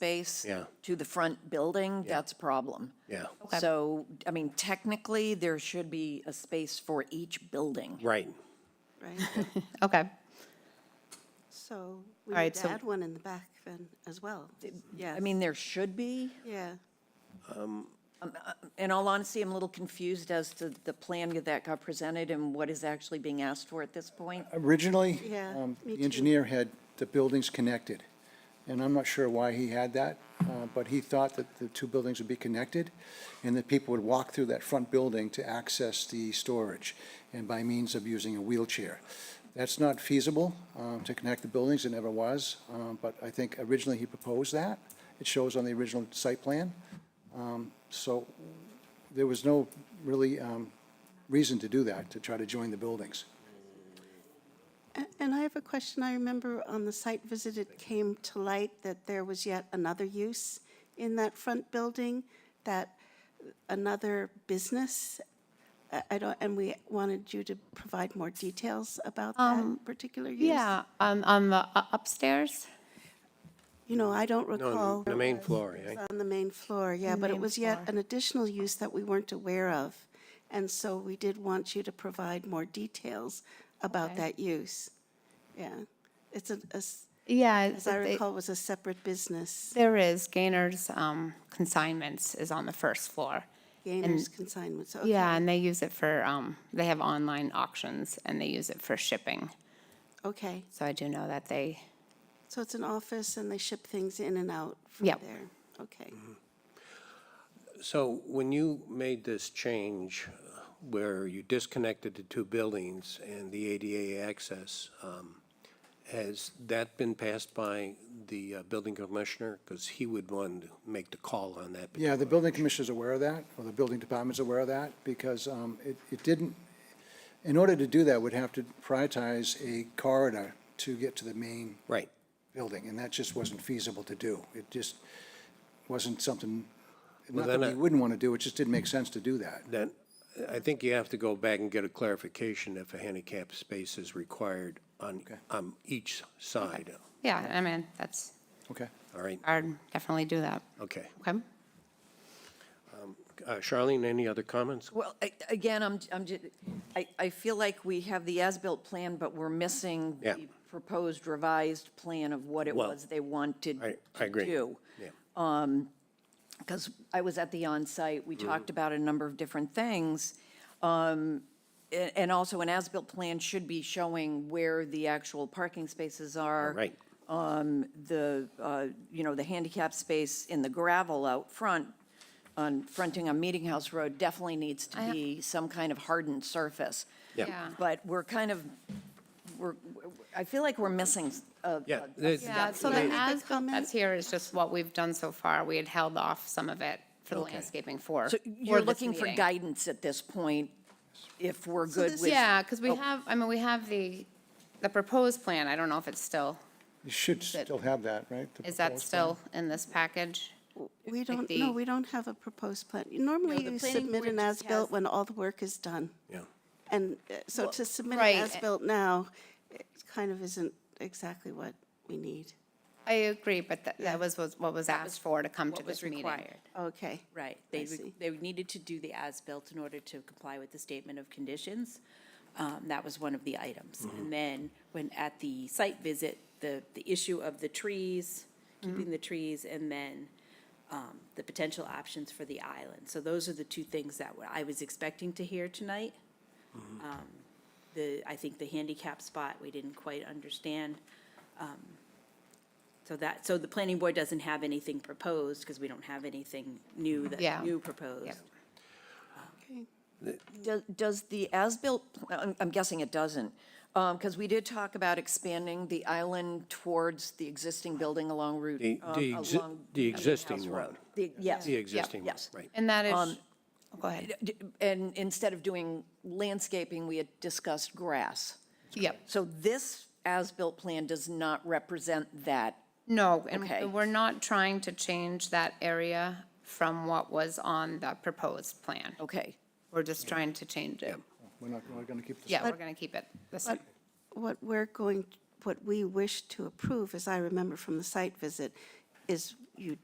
space Yeah. to the front building, that's a problem. Yeah. So, I mean, technically, there should be a space for each building. Right. right? Okay. So we All right, need to so- add one in the back then as well. Yeah, I mean, there should be. yeah. In all honesty, I'm a little confused as to the plan that got presented and what is actually being asked for at this point. Originally, Yeah, um, me the too. engineer had the buildings connected, and I'm not sure why he had that, uh, but he thought that the two buildings would be connected, and that people would walk through that front building to access the storage, and by means of using a wheelchair. That's not feasible um, to connect the buildings, it never was, um, but I think originally he proposed that. It shows on the original site plan. Um, So there was no really um, reason to do that, to try to join the buildings. A- And I have a question. I remember on the site visit, it came to light that there was yet another use in that front building, that another business, I- I don't, and we wanted you to provide more details about that particular use. Um, Yeah, um, on the u- upstairs. You know, I don't On recall. the main floor, yeah. On the main floor, yeah, but it was yet an additional use that we weren't aware of. And so we did want you to provide more details about that use. Yeah, it's a, a s- Yeah, as it's- I it- recall, it was a separate business, there is Gainer's um, Consignments is on the first floor. Gainers Consignments. okay. Yeah, and they use it for, um, they have online auctions and they use it for shipping. Okay, So I do know that they, so it's an office and they ship things in and out from Yep. there. Okay, So when you made this change uh, where you disconnected the two buildings and the ADA access, um, has that been passed by the uh, building commissioner? Because he would want to make the call on that. Yeah, the building commissioner's aware of that, or the building department's aware of that, because um, it it didn't, in order to do that, we'd have to prioritize a corridor to get to the main Right. building, and that just wasn't feasible to do. It just wasn't something, Well, not that then we I- wouldn't want to do, it just didn't make sense to do that. Then, I think you have to go back and get a clarification if a handicap space is required on, on each side. yeah, I mean, that's, Okay. All right? I'd definitely do that. Okay. Okay? Uh, Charlene, any other comments? Well, a- again, I'm, I'm, ju- I, I feel like we have the as-built plan, but we're missing Yeah. the proposed revised plan of what it Well, was they wanted I- to I agree. do. Yeah. Because I was at the on-site, Mm-hmm. we talked about a number of different things. Um, a- And also, an as-built plan should be showing where the actual parking spaces are. Right. the, uh, you know, the handicap space in the gravel out front, on fronting on Meeting House Road, definitely needs to I- be some kind of hardened surface. Yeah. Yeah. But we're kind of, we're, I feel like we're missing a. Yeah, a- there's- Yeah, so Can I the make a as-built comment? that's here is just what we've done so far. We had held off some of it for the landscaping for. So for you're this looking for meeting. guidance at this point, if we're good this- with. Yeah, because we Oh. have, I mean, we have the, the proposed plan. I don't know if it's still, You should still have that, right? the is that proposed plan? still in this package? we don't, the- no, we don't have a proposed plan. Normally you submit an as-built when all the work is done. Yeah. And uh, so to submit right, an a- as-built now, it kind of isn't exactly what we need. I agree, but that, that was, was what was asked for to come to what was this meeting. required. Okay. Right, they, re- see. they needed to do the as-built in order to comply with the statement of conditions. Um, That was one of the items. And then, when, at the site visit, the, the issue of the trees, keeping the trees, and then um, the potential options for the island. So those are the two things that were- I was expecting to hear tonight. Um, The, I think the handicap spot, we didn't quite understand. Um, So that, so the planning board doesn't have anything proposed, because we don't have anything new Yeah. that, new proposed. Okay. Does- Does the as-built, I'm I'm guessing it doesn't, because we did talk about expanding the island towards the existing building along Route, The- um, the exi- along the Meeting existing House one. Road. The- Yes. The existing one, Yes. right. And that is, Um, go ahead. D- And instead of doing landscaping, we had discussed grass. Yep. So this as-built plan does not represent that. No, Okay. and we're not trying to change that area from what was on the proposed plan. Okay. We're just trying to change it. We're not, we're going to keep this. Yeah, we're gonna keep it the same. What we're going, what we wish to approve, as I remember from the site visit, is